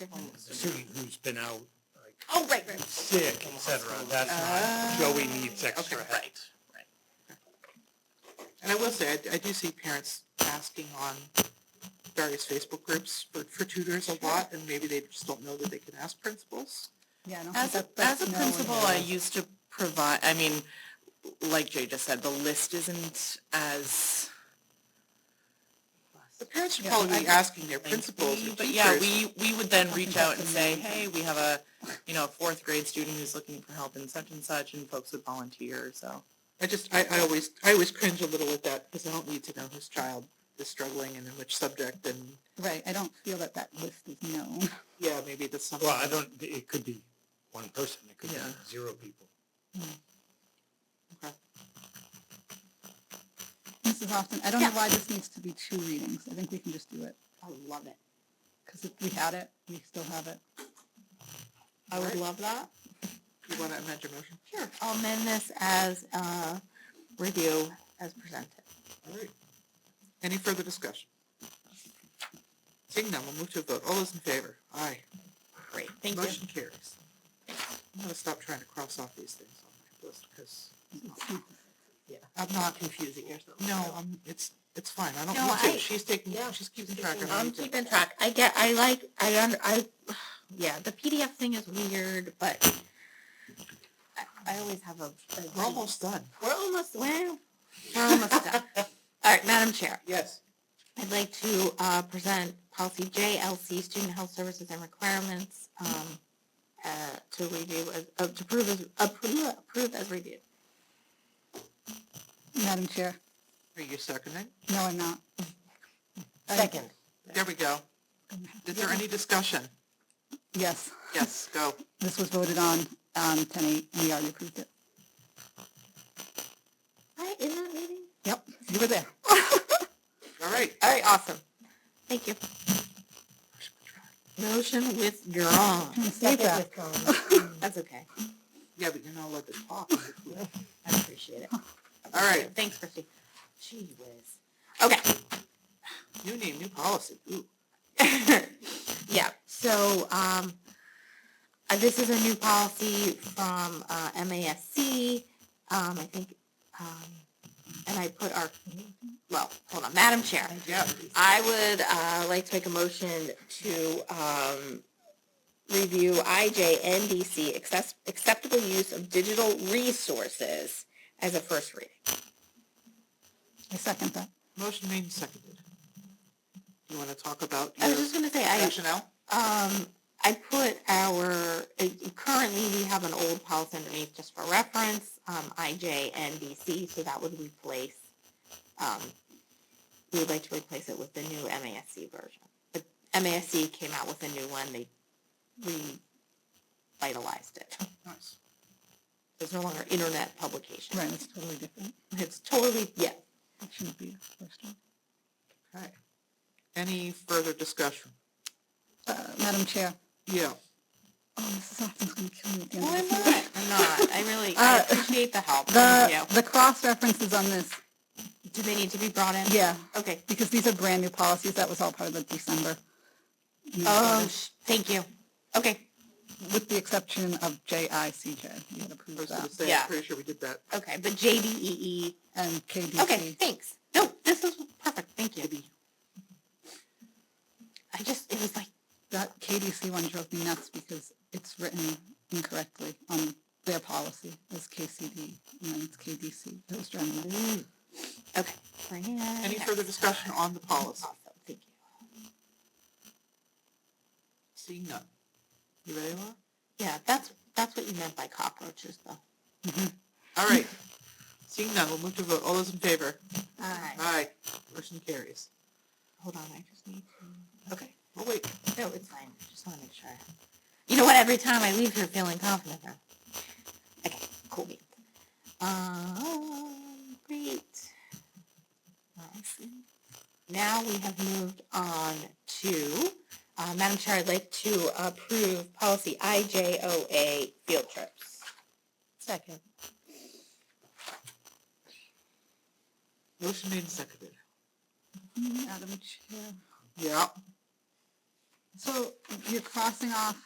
a student who's been out like Oh, right, right. sick, et cetera, that's not, Joey needs Ah, Okay, extra help. right, right. And I will say, I, I do see parents asking on various Facebook groups for, for tutors a lot, and maybe they just don't know that they can ask principals. Yeah, I don't think As a, that- that's as a no one principal, I knows. used to provide, I mean, like Jay just said, the list isn't as, The parents should Yeah, probably I- be asking their principals or but yeah, teachers. we, we would then I think reach out that's and the say, main hey, we have a, you know, a fourth grade student who's looking for help in such and such, and folks would volunteer, so. I just, I, I always, I always cringe a little at that, because I don't need to know whose child is struggling and in which subject, and, Right, I don't feel that that list is known. yeah, maybe that's something. Well, I don't, it could be one person, it could be Yeah. zero people. Mrs. Austin, I don't know Yeah. why this needs to be two readings. I think we can just do it. I love it. Because if we had it, we still have it. I would love that. You want to amend your motion? Sure. I'll amend this as, uh, review as presented. All right. Any further discussion? Seeing none, we'll move to a vote. All those in favor? Aye. Great, thank Motion carries. I'm gonna stop trying to cross off these things on my list, because I'm not confusing yourself. No, I'm, it's, it's fine. I No, don't need I- to. She's taking, she's keeping track of I'm everything. keeping track. I get, I like, I under, I, yeah, the PDF thing is weird, but I, I always have a. a- We're almost done. We're almost, well, we're almost done. All right, Madam Chair, Yes. I'd like to, uh, present policy JLC, student health services and requirements, um, uh, to review, as- uh, to approve as, appro- approve as reviewed. Madam Chair, Are you seconding? no, I'm not. I- There we go. Is there any discussion? Yes, Yes, go. this was voted on, um, ten eight. We already approved it. Hi, in that meeting? Yep, you were there. All right. All right, awesome. Thank you. Motion withdrawn. Save that. That's okay. Yeah, but you're not allowed to talk. I appreciate it. All right, Thanks, Christy. Gee whiz. Okay. new name, new policy. Ooh. Yeah, so, um, uh, this is a new policy from, uh, MASC. Um, I think, um, and I put our, well, hold on, Madam Chair. Yeah. I would uh, like to make a motion to um, review IJNDC, access- acceptable use of digital resources as a first reading. I second that. Motion made and seconded. You want to talk about I your was just going to say, I, rationale? um, I put our, it- currently we have an old policy underneath just for reference, um, IJNDC, so that would replace, um, we would like to replace it with the new MASC version. But MASC came out with a new one, they revitalized it. Nice. It's no longer internet publication. Right, it's totally different. It's totally, yeah, It shouldn't be the first one. Okay. Any further discussion? Uh, Madam Chair, Yeah. oh, Mrs. Austin's gonna kill me again. Well, I'm not. I'm not. I really I Uh, appreciate the help. Thank The, you. the cross references on this, Do they need to be brought in? yeah, Okay. because these are brand new policies. That was all part of the December. meeting Oh, order, sh- thank you. Okay. With the exception of JICJ, you had I was approved going that, to say, Yeah. I'm pretty sure we did that. Okay. But JDEE. and KDC. E. E Okay. Thanks. No, this is perfect. Thank you. I just it was like That KDC one drove me nuts because it's written incorrectly on their policy as KCD, and then it's KDC. It was driving me nuts. okay. Bring it in. Any further discussion on the policy? Awesome. Thank you. Seeing none. You ready, Laura? Yeah, that's that's what you meant by cockroaches, though. All right. Seeing none, we'll move to vote. All those in favor? All right. Aye. Motion carries. Hold on. I just need to. Okay. Oh, wait. No, it's fine. Just want to make sure. You know what? Every time I leave here feeling confident now. Okay, cool beans. Um, great. Awesome. Now we have moved on to, uh, Madam Chair, I'd like to approve policy IJOA field trips. Second. Motion made and seconded. Madam Chair, Yeah. So you're crossing off